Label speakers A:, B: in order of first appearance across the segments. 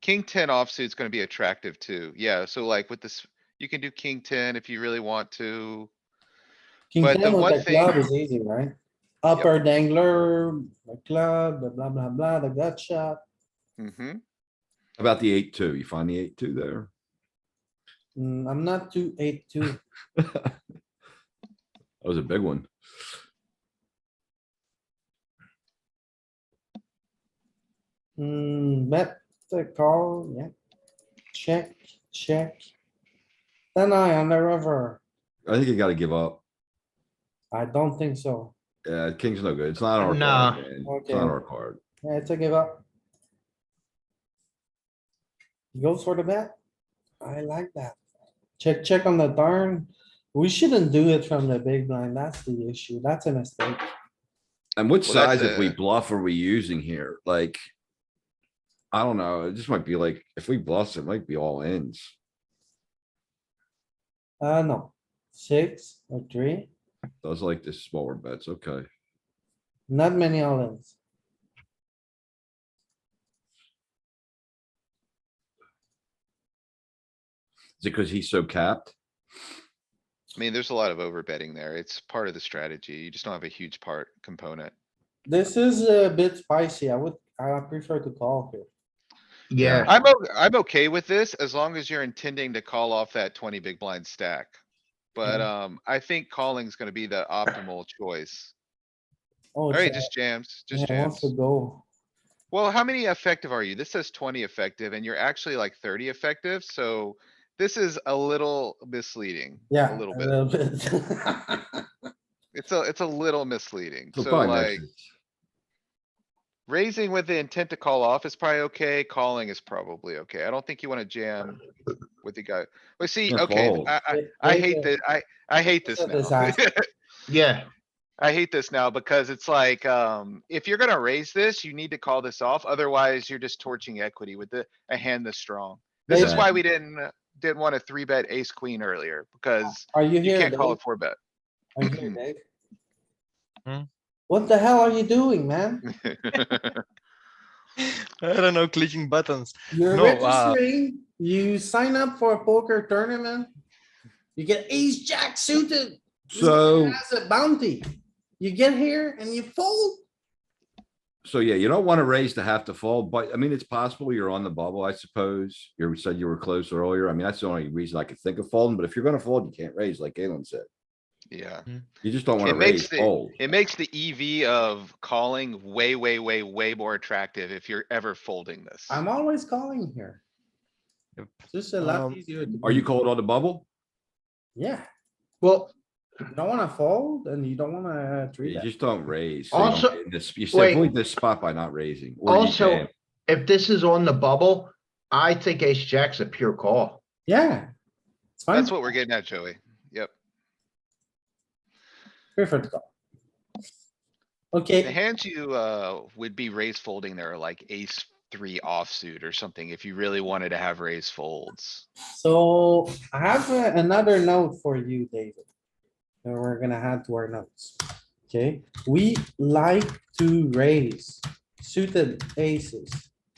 A: King ten offsuit's gonna be attractive too. Yeah, so like with this, you can do king ten if you really want to.
B: King
A: But the
B: ten
A: one
B: with the club
A: thing-
B: is easy, right? Upper dangler, the club, the blah, blah, blah, the gut shot. Mm-hmm.
A: hmm
C: About the eight, two, you find the eight, two there.
B: Mm, I'm not too eight, two.
C: That was a big one.
B: Hmm, bet the call, yeah. Check, check. Then I on the river.
C: I think you gotta give up.
B: I don't think so.
C: Yeah, king's no good. It's not our
D: Nah.
C: card. man. It's not
B: Okay.
C: our card.
B: Yeah, it's a give up. He Goes for the bet. I like that. Check, check on the turn. We shouldn't do it from the big blind. That's the issue. That's a mistake.
C: And what
A: Well, that's
C: size if we
A: a-
C: bluff are we using here? Like. I don't know. It just might be like, if we bluff, it might be all ends.
B: Uh, no. Six or three,
C: Does like the smaller bets, okay.
B: not many islands.
C: Is it because he's so capped?
A: I mean, there's a lot of overbetting there. It's part of the strategy. You just don't have a huge part component.
B: This is a bit spicy. I would, I prefer to call here.
D: Yeah,
A: I'm, o- I'm okay with this as long as you're intending to call off that twenty big blind stack. But,
B: Mm-hmm.
A: um, I think calling's gonna be the optimal choice.
B: Oh,
A: Alright,
B: it's-
A: just jams, just
B: yeah, it wants
A: jams.
B: to go.
A: Well, how many effective are you? This says twenty effective and you're actually like thirty effective, so this is a little misleading. A
B: Yeah.
A: little bit.
B: bit.
A: It's a, it's a little misleading.
C: So
A: So
C: probably
A: like,
C: mixes.
A: raising with the intent to call off is probably okay. Calling is probably okay. I don't think you wanna jam with the guy. But see,
C: Or
A: okay,
C: fold.
A: I, I, I hate that, I, I hate
B: It's
A: this
B: a
A: now.
B: disaster.
D: yeah,
A: I hate this now because it's like, um, if you're gonna raise this, you need to call this off. Otherwise, you're just torching equity with the, a hand this strong. This is
C: Maybe-
A: why we didn't, uh, didn't wanna three bet ace queen earlier because
B: Are you
A: you
B: here?
A: can't call a
B: Dave?
A: four bet.
B: Are you here, Dave?
D: Hmm?
B: What the hell are you doing, man?
D: I don't know, clicking buttons.
B: You're
D: No, uh,
B: registering, you sign up for a poker tournament. You get ace jack suited
C: So,
B: as a bounty. You get here and you fold.
C: so yeah, you don't wanna raise to have to fold, but I mean, it's possible you're on the bubble, I suppose. You said you were close earlier. I mean, that's the only reason I could think of folding, but if you're gonna fold, you can't raise like Galen said.
A: Yeah,
C: You just don't
A: It
C: wanna
A: makes
C: raise
A: the-
C: fold.
A: it makes the EV of calling way, way, way, way more attractive if you're ever folding this.
B: I'm always calling here.
D: Yep.
B: This is a lot
D: Um,
B: easier. to
C: Are you
B: do.
C: called on the bubble?
B: Yeah,
D: Well,
B: you don't wanna fold and you don't wanna treat
C: You
B: that.
C: just don't raise. so you don't
D: Also-
C: get in this- You
D: wait.
C: avoid this spot by not raising. or you
D: Also-
C: jam.
D: if this is on the bubble, I think ace jack's a pure call.
B: Yeah. It's fine.
A: That's what we're getting at, Joey. Yep.
B: Perfect call.
A: The
B: Okay,
A: hands you, uh, would be raise folding there are like ace three offsuit or something if you really wanted to have raise folds.
B: so I have a- another note for you, David. And we're gonna add to our notes. Okay, we like to raise suited aces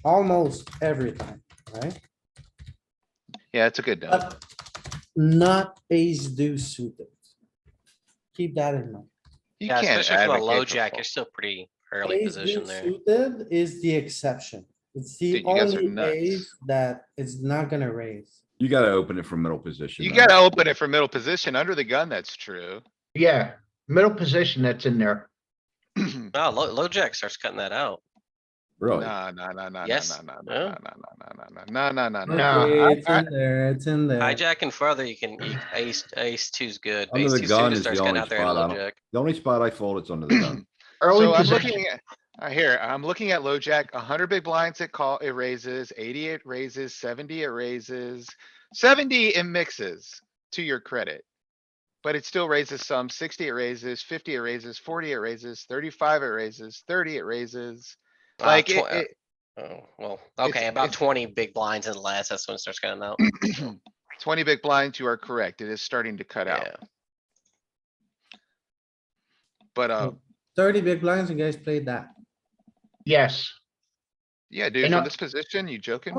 B: almost every time, right?
A: Yeah, it's a good note.
B: But not ace deuce suited. Keep that in mind.
A: You
E: Yeah,
A: can't
E: especially for a
A: advocate
E: low
A: for
E: jack,
A: fold.
E: you're still pretty early
B: Ace
E: position
B: deuce
E: there.
B: Suited is the exception. It's the
A: Dude, you guys are
B: only
A: nuts.
B: ace that it's not gonna raise.
C: You gotta open it from middle position.
A: You
C: though.
A: gotta open it for middle position. Under the gun, that's true.
D: Yeah, middle position that's in there.
E: Oh, low, low jack starts cutting that out.
C: Really?
A: Nah, nah, nah, nah, nah, nah,
E: Yes.
A: nah, nah, nah,
E: Yeah.
A: nah, nah, nah, nah, nah, nah, nah, nah, nah.
D: No,
B: Okay,
D: I-
B: It's in there, it's in there.
E: Hijack and further, you can, you- ace, ace two's good. but
C: Under the
E: Ace two
C: gun
E: suited
C: is
E: starts
C: the
E: cutting
C: only
E: out there in
C: spot I
E: low
C: don't-
E: jack.
C: The only spot I fold, it's under the gun.
D: Early
A: So I'm
D: position,
A: looking at, I hear, I'm looking at low jack, hundred big blinds it call, it raises, eighty it raises, seventy it raises, seventy it mixes, to your credit. But it still raises some, sixty it raises, fifty it raises, forty it raises, thirty-five it raises, thirty it raises.
E: Uh,
D: Ah,
A: Like, it,
E: tw-
A: it,
E: Oh, well,
A: it's-
E: okay, about
A: it's-
E: twenty big blinds and less, that's when it starts cutting out.
A: twenty big blinds, you are correct. It is starting to cut out,
E: Yeah,
A: but, uh,
B: Thirty big blinds, you guys played that.
D: yes.
A: yeah, dude,
D: And
A: from
D: I-
A: this position, you joking?